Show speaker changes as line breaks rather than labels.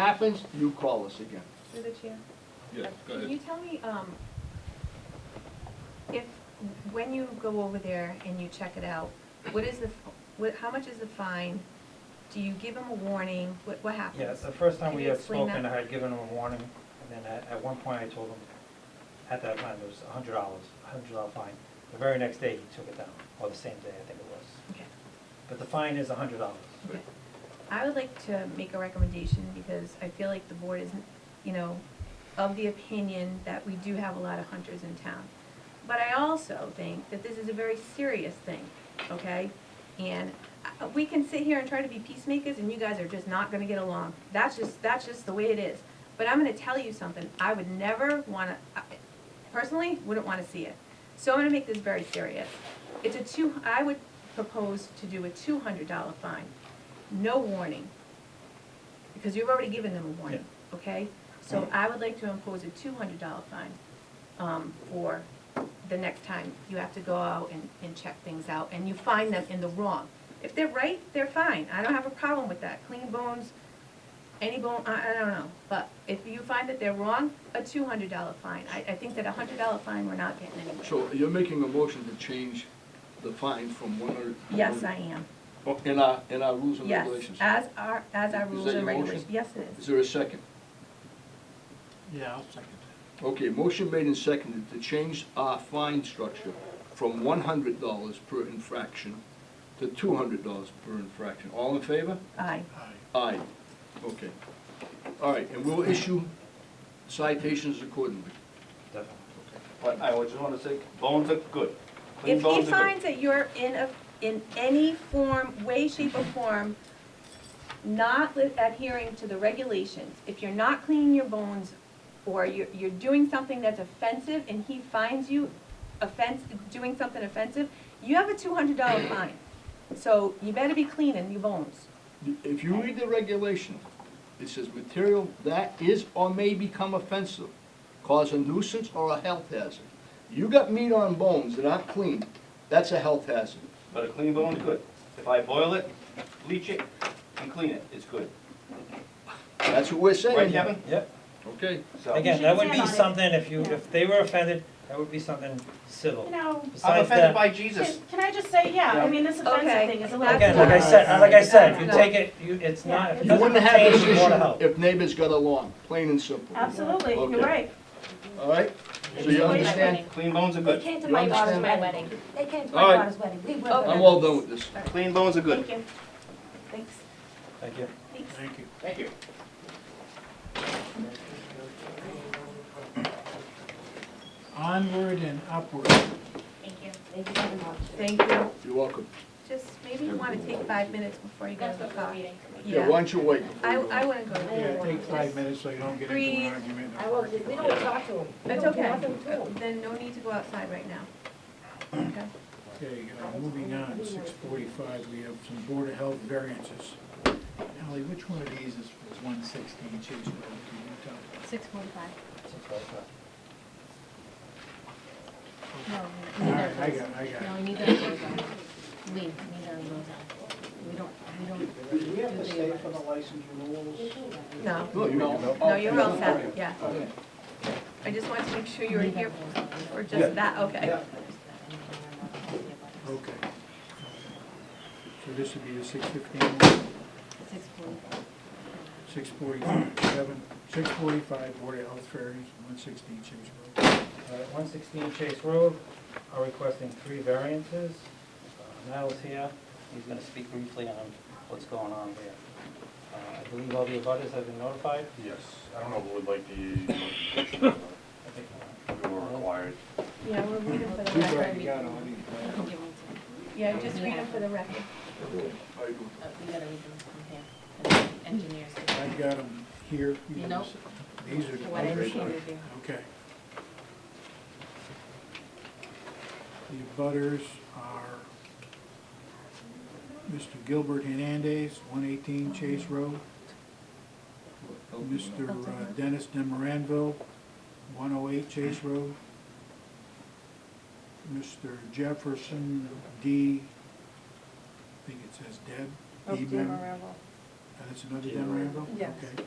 happens, you call us again.
Through the chair.
Yeah, go
Can
ahead.
you tell me, um, if, when you go over there and you check it out, what is the, f- what, how much is the fine? Do you give them a warning? What, what happens?
Yeah, it's the first time
Can
we
you
had
explain
spoken, I
that?
had given him a warning, and then at, at one point I told him, at that time, it was a hundred dollars, a hundred dollar fine. The very next day, he took it down, or the same day, I think it was.
Okay,
But the fine is a hundred dollars.
okay. I would like to make a recommendation because I feel like the board is, you know, of the opinion that we do have a lot of hunters in town. But I also think that this is a very serious thing, okay? And uh, we can sit here and try to be peacemakers and you guys are just not gonna get along. That's just, that's just the way it is. But I'm gonna tell you something, I would never wanna, I- personally, wouldn't wanna see it. So I'm gonna make this very serious. It's a two, I would propose to do a two hundred dollar fine, no warning. Because you've already given them a warning, okay? So I would like to impose a two hundred dollar fine, um, for the next time you have to go out and, and check things out, and you find them in the wrong. If they're right, they're fine, I don't have a problem with that, clean bones, any bone, I, I don't know, but if you find that they're wrong, a two hundred dollar fine, I, I think that a hundred dollar fine, we're not getting anywhere.
So you're making a motion to change the fine from one hundred.
Yes, I am,
In our, in our rules and
yes, uh,
regulations.
as our, as our
Is
rules
that
and
your motion?
regulations, yes it
Is
is,
there a second?
Yeah, I'll second
Okay, motion made and seconded to change our fine structure from one hundred dollars per infraction to two hundred dollars per infraction. All in favor?
aye,
it. Aye.
Aye. Okay. All right, and we'll issue citations accordingly.
Definitely.
But I just want to say, bones are good. Clean
If he
bones are
finds
good.
that you're in a, in any form, way, shape, or form, not li- adhering to the regulations, if you're not cleaning your bones, or you're, you're doing something that's offensive, and he finds you offense, doing something offensive, you have a two hundred dollar fine. So you better be cleaning your bones.
If you read the regulation, it says material that is or may become offensive, cause a nuisance or a health hazard. You got meat on bones that aren't clean, that's a health hazard.
But a clean bone is good. If I boil it, bleach it, and clean it, it's good.
That's what we're saying.
Right, Kevin?
Yep,
Okay,
So,
again, that would
Stand
be
on it.
something, if you,
Yeah.
if they were offended, that would be something
You
civil.
know,
I'm
Besides
offended
that,
by
can
Jesus.
can I just say, yeah, I
Yeah.
mean, this
Okay.
offensive thing is a lot.
again, like I said, uh, like I said, if you
That's
take it, you, it's not, if it
You
you
doesn't
wouldn't have
pertain
this
to Board of
Oh.
issue
Health.
if neighbors got along, plain and simple.
Absolutely,
Okay.
you're right.
All right, so you understand?
Clean bones are
They
good.
came to
You
my daughter's
understand?
my wedding. They came to
All
my
right.
daughter's wedding. We were.
Okay.
I'm all done with this.
Clean bones are good.
Thank you. Thanks.
Thank you.
Thanks.
Thank you.
Thank you.
Onward and upward.
Thank you. Thank you very much.
Thank you.
You're welcome.
Just maybe you wanna take five minutes before you
You
go
guys
to the
go for a
car.
meeting.
Yeah, why don't you wait? before
I,
you go?
I wouldn't go to the
Yeah, take five minutes so you don't get into
Breathe.
an argument.
I will, we don't talk to him. We
That's
don't do
okay,
nothing to him.
then no need to go outside right now. Okay.
Okay, uh, moving on, six forty-five, we have some Board of Health variances. Ally, which one of these is one sixteen Chase Road? Can you tell?
Six forty-five.
All right, I got, it, I got. it.
need those goes on. We, need those goes on. We don't, we don't.
Do we have to stay for the license renewals?
No,
No, you
no, you're all set, yeah. I just wanted to make sure you were here for just that, okay.
Yeah.
Okay. So this would be the six fifteen one?
Six forty-five.
Six forty-five, seven, six forty-five, Board of Health Ferries, one sixteen Chase Road.
One sixteen Chase Road are requesting three variances. Uh, Niall's here, he's gonna speak briefly on what's going on there. Uh, I believe all the abutters have been notified.
Yes, I don't know if we'd like the,
I think, uh,
we were required.
Yeah, we're reading for the
We've
record.
already got all these.
Yeah, just reading for the record.
How you doing?
uh,
We gotta read them from here, engineers.
I got them here.
You know,
These are the
what I
butters.
can do.
Okay. The butters are Mr. Gilbert Hernandez, one eighteen Chase Road. Mr. uh, Dennis Demoranville, one oh eight Chase Road. Mr. Jefferson D., I think it says Deb. D. Mem- uh, That's another Demoranville?
Yes.
Okay.